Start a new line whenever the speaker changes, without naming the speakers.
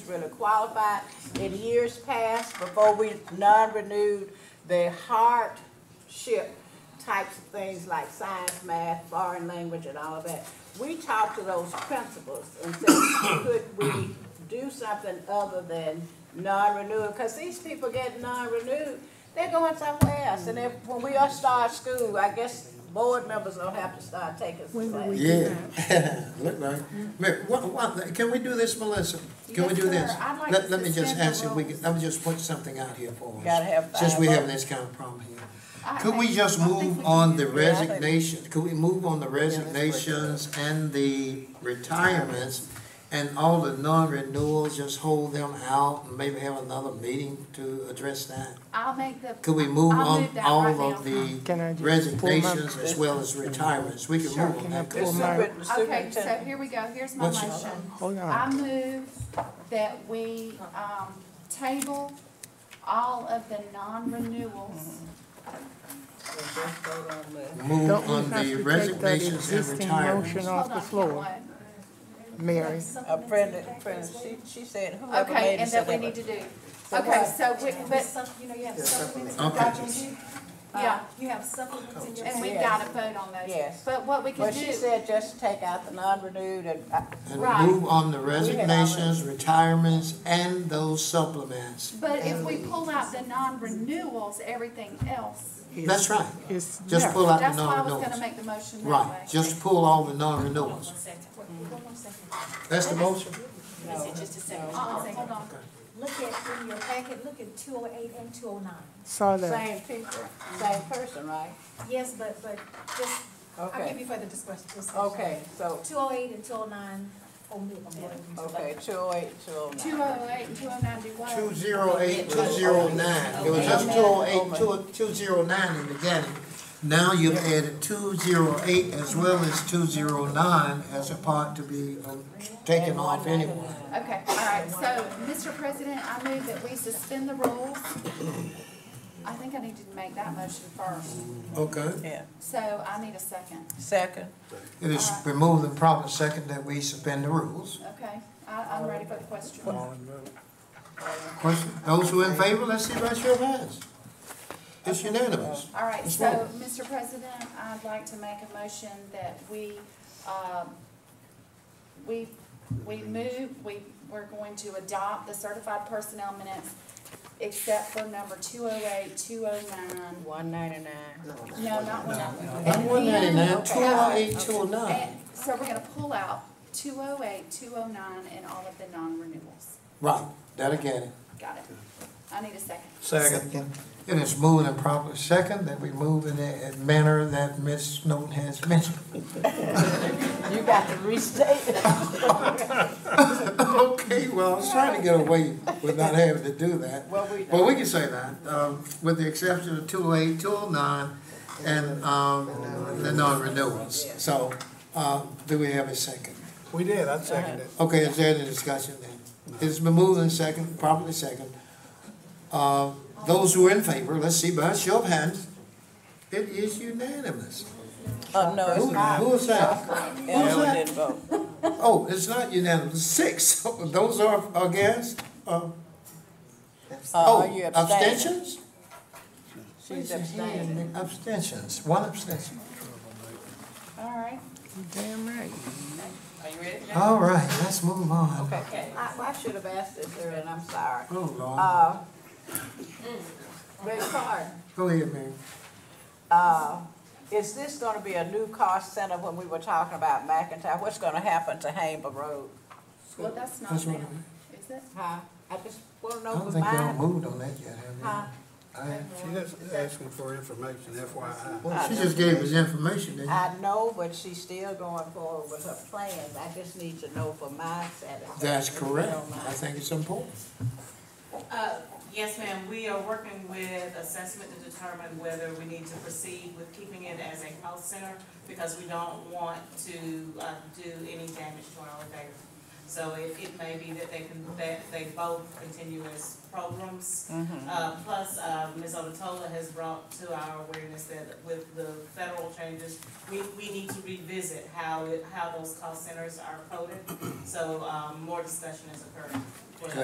really qualified. In years past, before we non-renewed, the hardship types of things like science, math, foreign language, and all of that, we talked to those principals and said, could we do something other than non-renewal? Because these people get non-renewed, they're going somewhere else. And if, when we all start school, I guess board members don't have to start taking some
When do we
classes.
Yeah, look like, wait, what, what, can we do this, Melissa? Can we
Yes,
do
sir.
this?
I'd like
Let,
to
let me just
suspend the
ask if we
rules.
could, let me just put something out here for us.
Gotta have
Since
five
we have
votes.
this kind of problem here.
I-
Could we
I-
just
I think
move
we
on
can
the
do
that. Yeah, I think-
resignations, could we move on the resignations and the retirements? And all the non-renewals, just hold them out and maybe have another meeting to address that?
I'll make the.
Could we move
I'll
on
move that right
all
now.
of the
Can I just pull my-
resignations as well as retirements? We can
Sure.
move on
Can I
that.
pull
Chris.
my-
Super- the
Okay, so
superintendent.
here we go, here's my
What's-
motion.
Hold on.
I move that we, um, table all of the non-renewals.
Move
Don't we
on
have
the
to take that
resignations and
existing motion
retirements.
off
Hold
the
on,
floor,
what?
Mary.
A friend, a friend, she, she said whoever
Okay,
made it
and that
said
we
that.
need to do, okay, so, we- but,
You know, you have supplements.
Okay.
documents.
yeah,
You have supplements in your.
and we
Uh, Yes.
gotta vote on those.
Yes.
But what we
Well,
can
she
do,
said just take out the non-renewed and, uh,
Right.
And move on the
already-
resignations, retirements, and those supplements.
but if we pull out the non-renewals, everything else,
That's right.
It's
Just
there.
pull out the
that's why I was gonna
non-renewals.
make the motion that way.
Right, just pull all the non-renewals.
Mm-hmm.
That's the motion?
Just a second. Uh-uh, hold on.
Uh, Look at, in your packet, look at two oh eight and two oh nine.
Saw that.
same people, same person, right?
Yes, but, but just, I'll give
Okay,
you further discussion.
okay, so,
Two oh eight and two oh nine omit.
okay, two oh eight, two oh nine.
Two oh eight and two oh nine do what?
Two zero eight, two zero nine. It was just two oh eight, two, two zero nine in the beginning. Now you've added two zero eight as well as two zero nine as a part to be um, taken off anyway.
Okay, all right, so, Mr. President, I move that we suspend the rules. I think I need to make that motion first,
Okay.
Yeah,
so I need a second,
second,
It is removed and proper second that we suspend the rules.
okay? I, I'm ready for the question.
Question, those who in favor, let's see by show of hands. It's unanimous.
All right,
Ms.
so,
Miller.
Mr. President, I'd like to make a motion that we, um, we, we move, we, we're going to adopt the certified personnel minutes except for number two oh eight, two oh nine.
one ninety-nine.
No, not one oh eight.
Not one ninety-nine, two oh eight, two oh
And
nine.
so we're gonna pull out 208, 209, and all of the non-renewals.
Right, that again.
Got it? I need a second.
Second. It is moved and proper second that we move in a manner that Ms. Snowden has mentioned.
You got to restate it.
Okay, well, I was trying to get away with not having to do that.
Well, we-
Well, we can say that, um, with the exception of two oh eight, two oh nine, and, um, the non-renewals. So, uh, do we have a second?
We did, I seconded it.
Okay, is there any discussion then? It's been moved and second, properly second. Uh, those who are in favor, let's see by a show of hands. It is unanimous.
Oh, no,
Who,
it's not.
who was that?
Ellen
that?
didn't vote.
Oh, it's not unanimous, six. Those are against, uh,
Uh,
oh,
you abstained.
abstentions?
She's abstaining.
Abstentions, one abstention.
All right.
Damn right.
Are you ready?
All right, let's move on.
Okay, I, I should have asked this earlier, and I'm sorry.
Oh, Lord.
Uh, Ms. Carter,
Go ahead, Mary.
uh, is this gonna be a new cost center when we were talking about McIntyre? What's gonna happen to Hamer Road?
Well, that's not
That's
now,
what I-
is it?
Huh? I just wanna
I
know
don't
if
think y'all
mine,
moved on that yet,
huh?
have you? I haven't.
She just asking for information, FYI.
Well, she just gave us information, didn't she?
I know, but she's still going forward with her plans. I just need to know for my satisfaction.
That's
if you
correct.
don't mind.
I think it's important.
Uh, Yes, ma'am, we are working with assessment to determine whether we need to proceed with keeping it as a health center because we don't want to uh, do any damage to our elevator. So it, it may be that they can, that they both continue as programs. Uh, Plus, uh, Ms. Otola has brought to our awareness that with the federal changes, we, we need to revisit how, it- how those cost centers are coded. So um, more discussion is occurring.